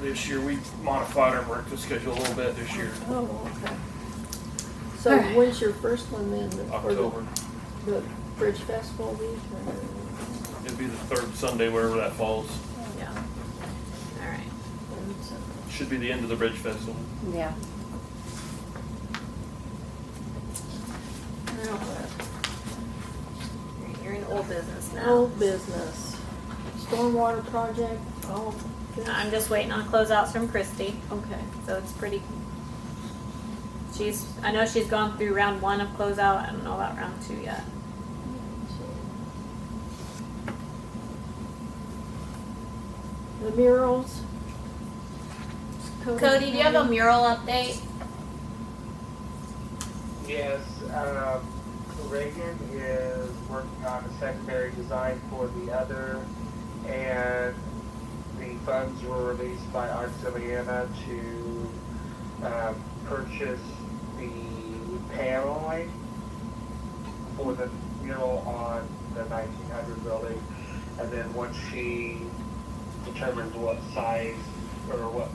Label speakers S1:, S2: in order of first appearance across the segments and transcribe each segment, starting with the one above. S1: This year, we modified our breakfast schedule a little bit this year,
S2: Oh, okay. So
S3: Alright.
S2: when's your first one then? The- for the-
S1: October.
S2: The Bridge Festival week?
S1: It'd be the third Sunday, wherever that falls.
S3: Yeah. All right.
S1: Should be the end of the Bridge Festival.
S4: Yeah.
S3: Now what? You're in old business now.
S2: Old business, stormwater project, all good?
S3: I'm just waiting on closeouts from Christy,
S2: Okay,
S3: so it's pretty. She's. I know she's gone through round one of closeout. I don't know about round two yet.
S2: the murals?
S3: Cody, do you have a mural update?
S5: Yes, uh, Reagan is working on a secondary design for the other, and the funds were released by Auxiliana to uh, purchase the paneling for the mural on the 1900 building, and then once she determines what size or what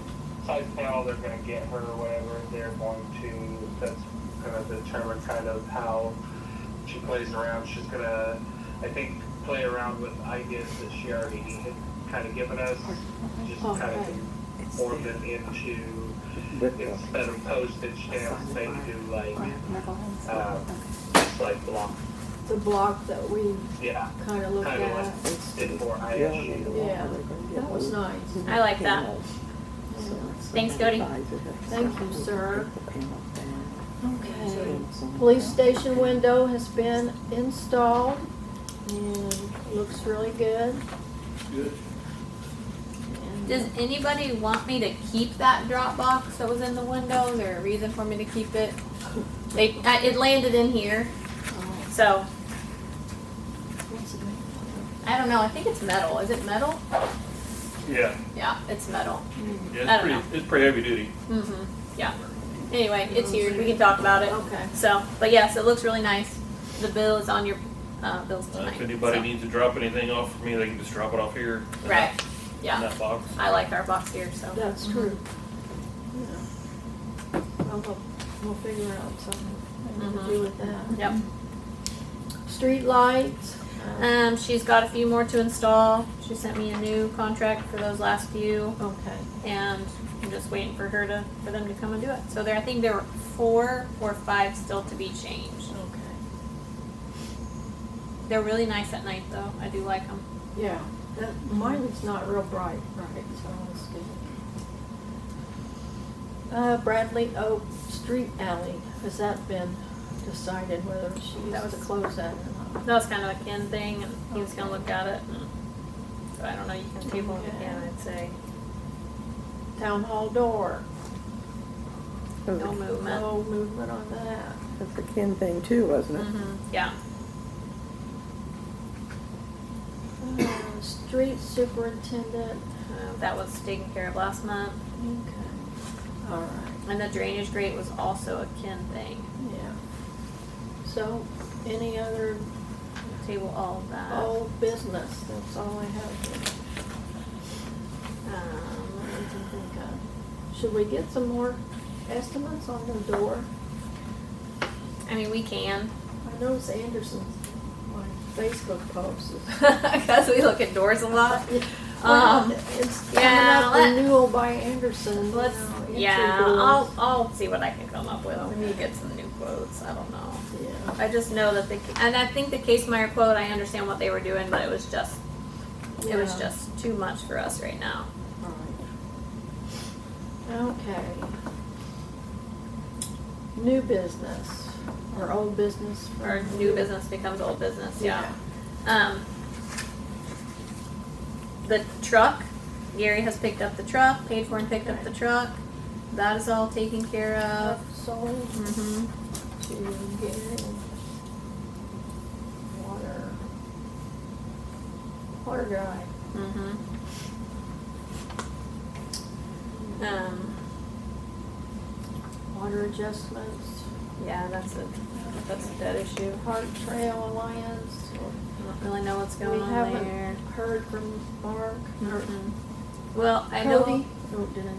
S5: size panel they're going to get her or whatever, they're going to that's going to determine kind of how she plays around. She's going to, I think, play around with ideas that she already had kind of given us, just kind
S2: Okay.
S5: of form them into instead of postage stamps, they do like uh, just like block,
S2: The block that we
S5: yeah,
S2: kinda looked
S5: Kinda
S2: at,
S5: like- in for ISU.
S2: yeah, that was nice.
S3: I like that. Thanks, Cody.
S2: Thank you, sir. Okay. Police station window has been installed and looks really good.
S1: Good.
S2: And
S3: Does anybody want me to keep that drop box that was in the window? Is there a reason for me to keep it? They, I, it landed in here,
S2: Oh,
S3: so
S2: what's it made
S3: I don't know. I think it's metal. Is it metal?
S1: Yeah,
S3: Yeah, it's metal.
S1: yeah,
S3: I
S1: it's
S3: don't
S1: pretty, it's pretty heavy duty.
S3: Mm-hmm. Yeah. Anyway, it's here. We can talk about it.
S2: of? Okay.
S3: So, but yes, it looks really nice. The bill is on your uh, bills
S1: Uh,
S3: tonight.
S1: If anybody
S3: so-
S1: needs to drop anything off for me, they can just drop it off here. in
S3: Right.
S1: that- In
S3: Yeah.
S1: that box.
S3: I like our box here, so.
S2: That's true. Yeah. I'll go- We'll figure out something
S3: Mm-hmm.
S2: to do with that.
S3: Yep.
S2: Street lights. uh,
S3: Um, she's got a few more to install. She sent me a new contract for those last few.
S2: Okay.
S3: and I'm just waiting for her to for them to come and do it. So there, I think there were four or five still to be changed.
S2: Okay.
S3: They're really nice at night, though. I do like them.
S2: Yeah, that, mine is not real bright, right, so it's good. Uh, Bradley Oak Street Alley, has that been decided whether she's
S3: That was-
S2: to close that or not?
S3: That was kind of a Ken thing, and he was gonna look at it. and- So I don't know. You can table it again. I'd say
S2: Town Hall door,
S3: no movement.
S2: no movement on that.
S4: That's a Ken thing too, wasn't it?
S3: hmm Yeah.
S2: Uh, Street Superintendent,
S3: Uh, that was taken care of last month,
S2: okay, all right,
S3: and the drainage grate was also a Ken thing.
S2: yeah. So, any other
S3: Table all of that.
S2: old business, that's all I have here.
S3: Um,
S2: that we can think of. Should we get some more estimates on the door?
S3: I mean, we can
S2: I noticed Anderson's, my Facebook post is.
S3: because we look at doors a lot.
S2: Well, It's
S3: yeah,
S2: coming up
S3: let-
S2: renewal by Anderson, you
S3: Let's,
S2: know, entry
S3: yeah,
S2: doors.
S3: I'll, I'll see what I can come up with. We need to get some new quotes. I don't know.
S2: Yeah,
S3: I just know that the, and I think the Case Meyer quote, I understand what they were doing, but it was just, it was
S2: Yeah.
S3: just too much for us right now.
S2: all right. Okay. New business, or old business?
S3: Our new business becomes old business, yeah. Um, the truck, Gary has picked up the truck, paid for and picked up the truck. That is all taken care
S2: Uh,
S3: of.
S2: sold
S3: hmm
S2: Mm-hmm. to Gary. Water. Water guy.
S3: Mm-hmm. Um,
S2: Water adjustments,
S3: yeah, that's a, that's a dead issue.
S2: Park Trail Alliance,
S3: I don't really know what's
S2: We
S3: going on
S2: haven't-
S3: there.
S2: heard from Mark, or
S3: Mm-mm. Well, I know,
S2: Cody. Oh, did I